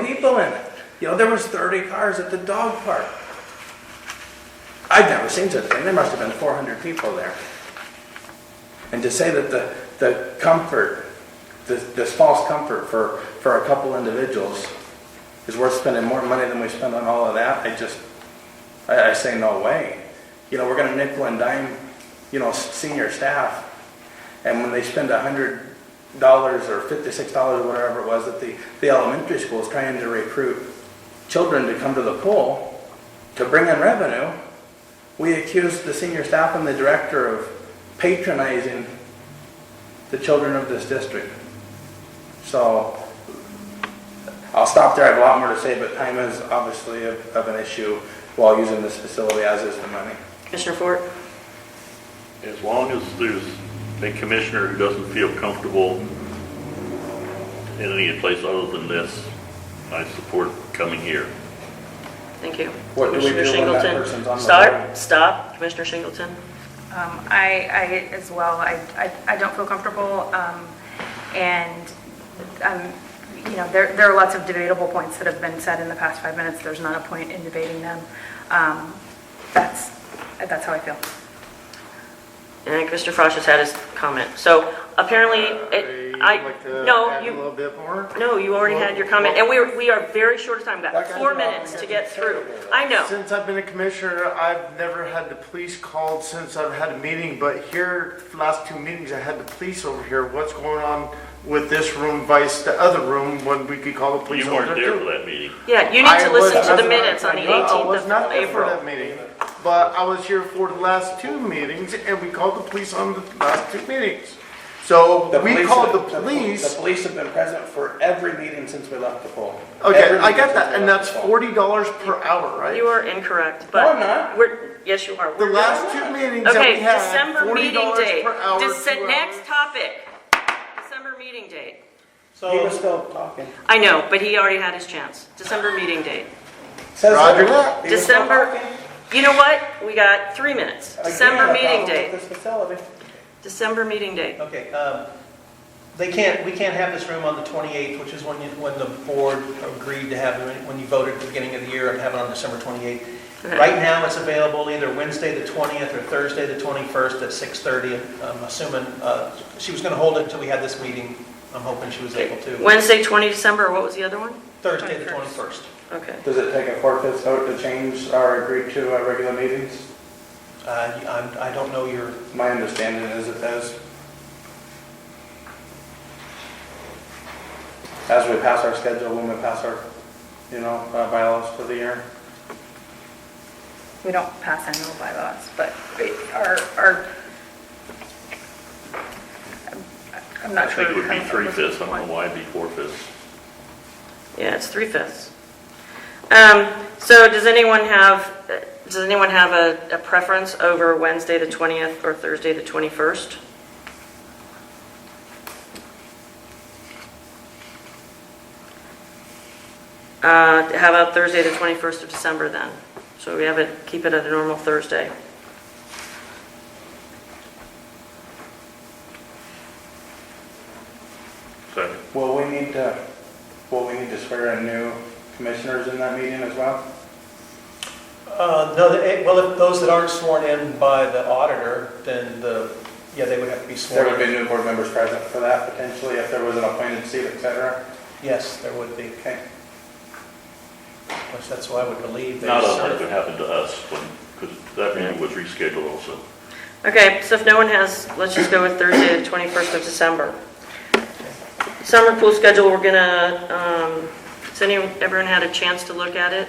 people in it. You know, there was 30 cars at the dog park. I've never seen such a thing. There must have been 400 people there. And to say that the, the comfort, this, this false comfort for, for a couple individuals is worth spending more money than we spend on all of that, I just, I, I say no way. You know, we're gonna nickel and dime, you know, s- senior staff. And when they spend a hundred dollars or fifty-six dollars or whatever it was that the, the elementary school is trying to recruit children to come to the pool to bring in revenue, we accuse the senior staff and the director of patronizing the children of this district. So, I'll stop there, I have a lot more to say, but time is obviously of, of an issue while using this facility, as is the money. Commissioner Fort? As long as there's a commissioner who doesn't feel comfortable in any place other than this, I support coming here. Thank you. What do we Commissioner do when that Singleton? person's on the Start, board? stop, Commissioner Singleton. Um, I, I as well, I, I I don't feel comfortable, um, and, um, you know, there, there are lots of debatable points that have been said in the past five minutes, there's not a point in debating them. Um, That's, that's how I feel. And Commissioner Frosch has had his comment. So apparently, it- I, no, you, bit more? no, you already had your comment, and we, are- we are very short of time, we've That got guy's four not minutes to gonna get say through. that. I know, Since I've been a commissioner, I've never had the police called since I've had a meeting, but here, last two meetings, I had the police over here. What's going on with this room vice the other room when we could call the police You over weren't there? there too? for that meeting. yeah, you need I to listen was- to the I- minutes on the I- I 18th was not of there for April. that meeting, but I was here for the last two meetings and we called the police on the last two meetings. So The we police- called the pol- The police. police have been present for every meeting since we left the pool. Okay, Every I meeting got that, since we and left that's the pool. forty dollars per hour, right? You are incorrect, but. I'm not. We're, yes, you are. The We're last done. two meetings that Okay, we had, December forty meeting dollars date. per hour. uh, Dece- two Next hours. topic, December meeting date. He was still talking. I know, but he already had his chance. December meeting date. Says he Roger was that. still December, talking. you know what? We got three minutes. Again, December a meeting problem date. with This facility. December meeting date. Okay, um, they can't, we can't have this room on the 28th, which is when you, when the board agreed to have, it, when you voted at the beginning of the year and have it on December 28th. Okay. Right now, it's available either Wednesday the 20th or Thursday the 21st at 6:30. I'm assuming, uh, she was going to hold it until we had this meeting. I'm hoping she was able to. Wednesday, 20 December, or what was the other one? Thursday the 21st. 21st. Okay. Does it take a four-fifths vote to change our agreed to uh, regular meetings? Uh, you- I'm- I don't know your, My understanding is it does. As we pass our schedule, when we pass our, you know, uh, bylaws for the year. We don't pass annual bylaws, but it- our, our, I'm- I'm I not sure. think it would be how- three fifths, I don't know why it'd be four fifths. Yeah, it's three fifths. Um, so does anyone have, does anyone have a, a preference over Wednesday, the 20th, or Thursday, the 21st? Uh, how about Thursday, the 21st of December then? So we have it, keep it at a normal Thursday. So Will we need to, will we need to swear in new commissioners in that meeting as well? Uh, no, the- eh, well, if those that aren't sworn in by the auditor, then the, yeah, they would have to be There sworn would be in. new board members present for that potentially, if there was an appointed seat, et cetera. Yes, there would be. Okay. Which that's why I would believe they not unlike serve. what happened to us when, because that meeting was rescheduled also. Okay, so if no one has, let's just go with Thursday, the 21st of December. Summer pool schedule, we're gonna, um, has anyone, everyone had a chance to look at it?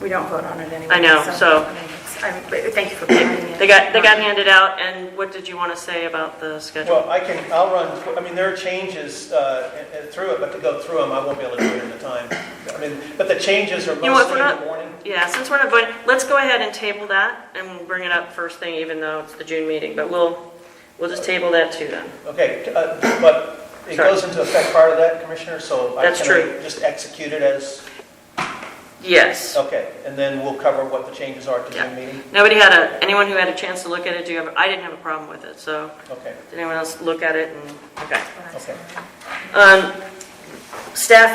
We don't vote on it anyway. I know, so- I mean, it's- I'm- but Thank you for reminding me. They got, they got handed out, and what did you want to say about the schedule? Well, I can, I'll run, I mean, there are changes uh, and- and through it, but to go through them, I won't be able to do it in the time. I mean, but the changes are You know what, mostly we're in not- the morning. Yeah, since we're not voting, let's go ahead and table that, and we'll bring it up first thing, even though it's the June meeting, but we'll, we'll just table that too then. Okay, uh, but it Sorry. goes into effect part of that, Commissioner, so. I That's can true. Just execute it as, Yes. okay, and then we'll cover what the changes are at the Yeah. June meeting? Nobody had a, anyone who had a chance to look at it, do you have, I didn't have a problem with it, so, Okay, did anyone else look at it and, okay. okay. Um, Staff